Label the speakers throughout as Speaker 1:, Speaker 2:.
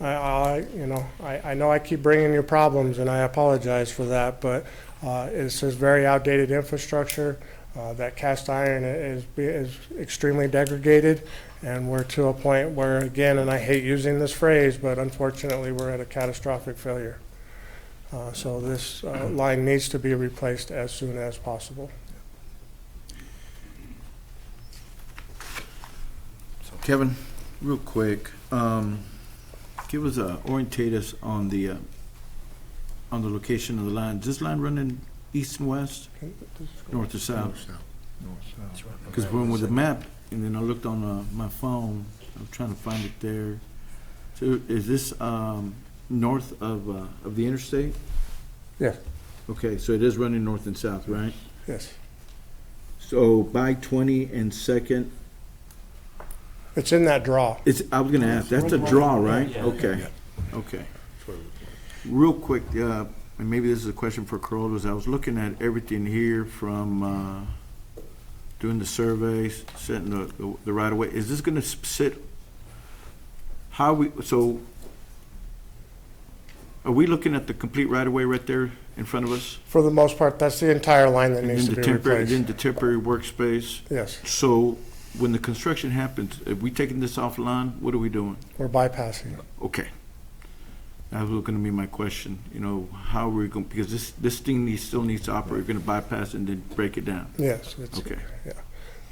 Speaker 1: I, I, you know, I, I know I keep bringing you problems and I apologize for that, but, uh, it's just very outdated infrastructure. Uh, that cast iron is, is extremely degraded and we're to a point where, again, and I hate using this phrase, but unfortunately, we're at a catastrophic failure. Uh, so this, uh, line needs to be replaced as soon as possible.
Speaker 2: So Kevin, real quick, um, give us a, orientate us on the, uh, on the location of the line. Is this line running east and west, north to south? Because when with the map, and then I looked on, uh, my phone, I'm trying to find it there. So is this, um, north of, uh, of the interstate?
Speaker 1: Yes.
Speaker 2: Okay, so it is running north and south, right?
Speaker 1: Yes.
Speaker 2: So by twenty and second,
Speaker 1: It's in that draw.
Speaker 2: It's, I was gonna ask, that's a draw, right? Okay, okay. Real quick, uh, and maybe this is a question for Corollas, I was looking at everything here from, uh, doing the surveys, setting the, the- the right of way, is this gonna s- sit? How we, so, are we looking at the complete right of way right there in front of us?
Speaker 1: For the most part, that's the entire line that
Speaker 2: And
Speaker 1: needs
Speaker 2: then
Speaker 1: to
Speaker 2: the
Speaker 1: be
Speaker 2: temporary, Then
Speaker 1: replaced.
Speaker 2: the temporary workspace,
Speaker 1: Yes,
Speaker 2: so when the construction happens, are we taking this offline, what are we doing?
Speaker 1: we're bypassing.
Speaker 2: Okay. That was gonna be my question, you know, how we're going, because this, this thing needs, still needs to operate, we're gonna bypass and then break it down.
Speaker 1: Yes, it's,
Speaker 2: Okay.
Speaker 1: yeah.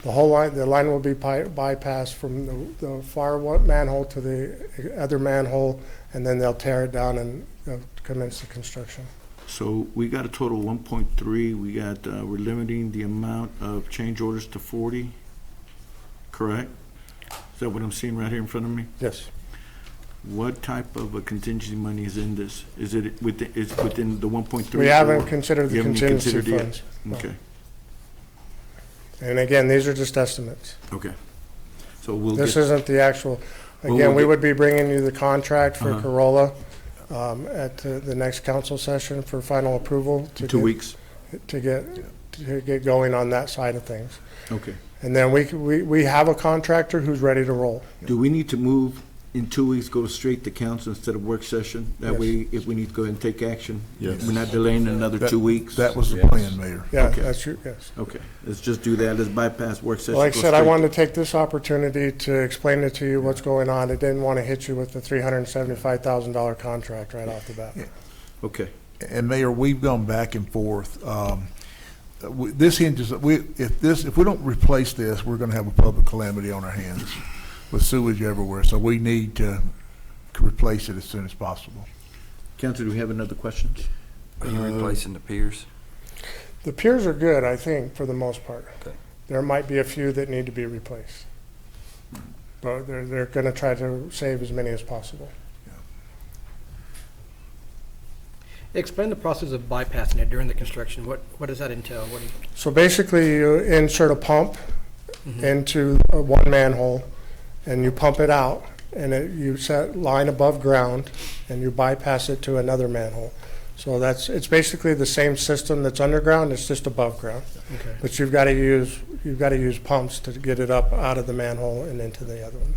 Speaker 1: The whole line, the line will be by- bypassed from the, the far one manhole to the other manhole, and then they'll tear it down and uh, commence the construction.
Speaker 2: So we got a total of one point three, we got, uh, we're limiting the amount of change orders to forty, correct? Is that what I'm seeing right here in front of me?
Speaker 1: Yes.
Speaker 2: What type of a contingency money is in this? Is it within, is within the one point three?
Speaker 1: We haven't considered the
Speaker 2: You haven't
Speaker 1: contingency
Speaker 2: considered yet?
Speaker 1: funds. no.
Speaker 2: Okay,
Speaker 1: And again, these are just estimates.
Speaker 2: okay. So we'll
Speaker 1: This
Speaker 2: get,
Speaker 1: isn't the actual,
Speaker 2: Well,
Speaker 1: again,
Speaker 2: we'll
Speaker 1: we
Speaker 2: get-
Speaker 1: would be bringing you the contract for
Speaker 2: Uh-huh.
Speaker 1: Corolla um, at the the next council session for final approval. to
Speaker 2: two
Speaker 1: get-
Speaker 2: weeks,
Speaker 1: To get, to get going on that side of things.
Speaker 2: okay.
Speaker 1: And then we, c- we, we have a contractor who's ready to roll.
Speaker 2: Do we need to move in two weeks, go straight to council instead of work session? That
Speaker 1: Yes.
Speaker 2: way, if we need to go ahead and take action,
Speaker 3: Yes.
Speaker 2: we're not delaying another
Speaker 3: That-
Speaker 2: two weeks?
Speaker 3: That was the plan, Mayor.
Speaker 1: Yeah,
Speaker 2: Okay.
Speaker 1: that's your, yes.
Speaker 2: Okay, let's just do that, let's bypass work session.
Speaker 1: Like I
Speaker 2: go
Speaker 1: said, I
Speaker 2: straight-
Speaker 1: wanted to take this opportunity to explain it to you what's going on. I didn't want to hit you with the three hundred and seventy-five thousand dollar contract right off the bat.
Speaker 2: Okay,
Speaker 3: And Mayor, we've gone back and forth. Um, uh, we- This hinges, we, if this, if we don't replace this, we're gonna have a public calamity on our hands with sewage everywhere, so we need to replace it as soon as possible.
Speaker 2: council, do we have another question?
Speaker 4: Are you replacing the piers?
Speaker 1: The piers are good, I think, for the most part.
Speaker 4: Okay.
Speaker 1: There might be a few that need to be replaced. But they're, they're gonna try to save as many as possible.
Speaker 5: Explain the process of bypassing it during the construction. What, what does that entail? What do you,
Speaker 1: So basically, you insert a pump
Speaker 5: Mhm.
Speaker 1: into a one manhole, and you pump it out, and it, you set line above ground, and you bypass it to another manhole. So that's, it's basically the same system that's underground, it's just above ground.
Speaker 5: okay.
Speaker 1: But you've got to use, you've got to use pumps to get it up out of the manhole and into the other one.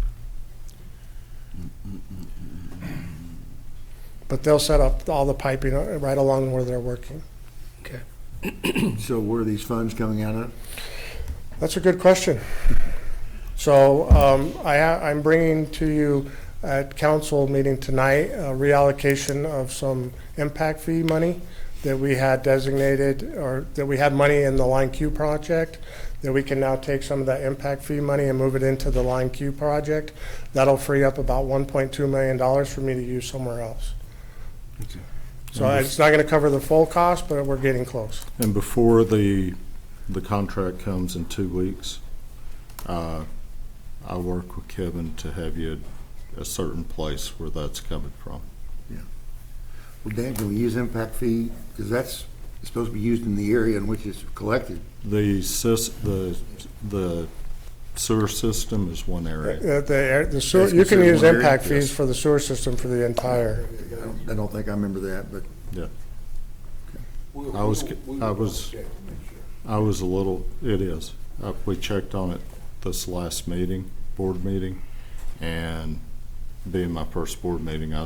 Speaker 1: But they'll set up all the piping uh, right along where they're working.
Speaker 2: So where are these funds coming out of?
Speaker 1: That's a good question. So um, I, ha- I'm bringing to you at council meeting tonight, a reallocation of some impact fee money that we had designated, or that we had money in the Line Q project, that we can now take some of that impact fee money and move it into the Line Q project. That'll free up about $1.2 million for me to use somewhere else.
Speaker 2: Okay.
Speaker 1: So it's not going to cover the full cost, but we're getting close.
Speaker 6: And before the, the contract comes in two weeks, uh, I'll work with Kevin to have you a certain place where that's coming from.
Speaker 7: Well, Dan, can we use impact fee, because that's supposed to be used in the area in which it's collected.
Speaker 6: The sys, the, the sewer system is one area.
Speaker 1: Uh, The air- the sewer,
Speaker 7: That's
Speaker 1: you can
Speaker 7: considered
Speaker 1: use
Speaker 7: one area?
Speaker 1: impact fees
Speaker 6: Yes.
Speaker 1: for the sewer system for the entire.
Speaker 7: I don't- I don't think I remember that, but
Speaker 6: I was, I was, I was a little, it is. Uh, We checked on it this last meeting, board meeting, and being my first board meeting, I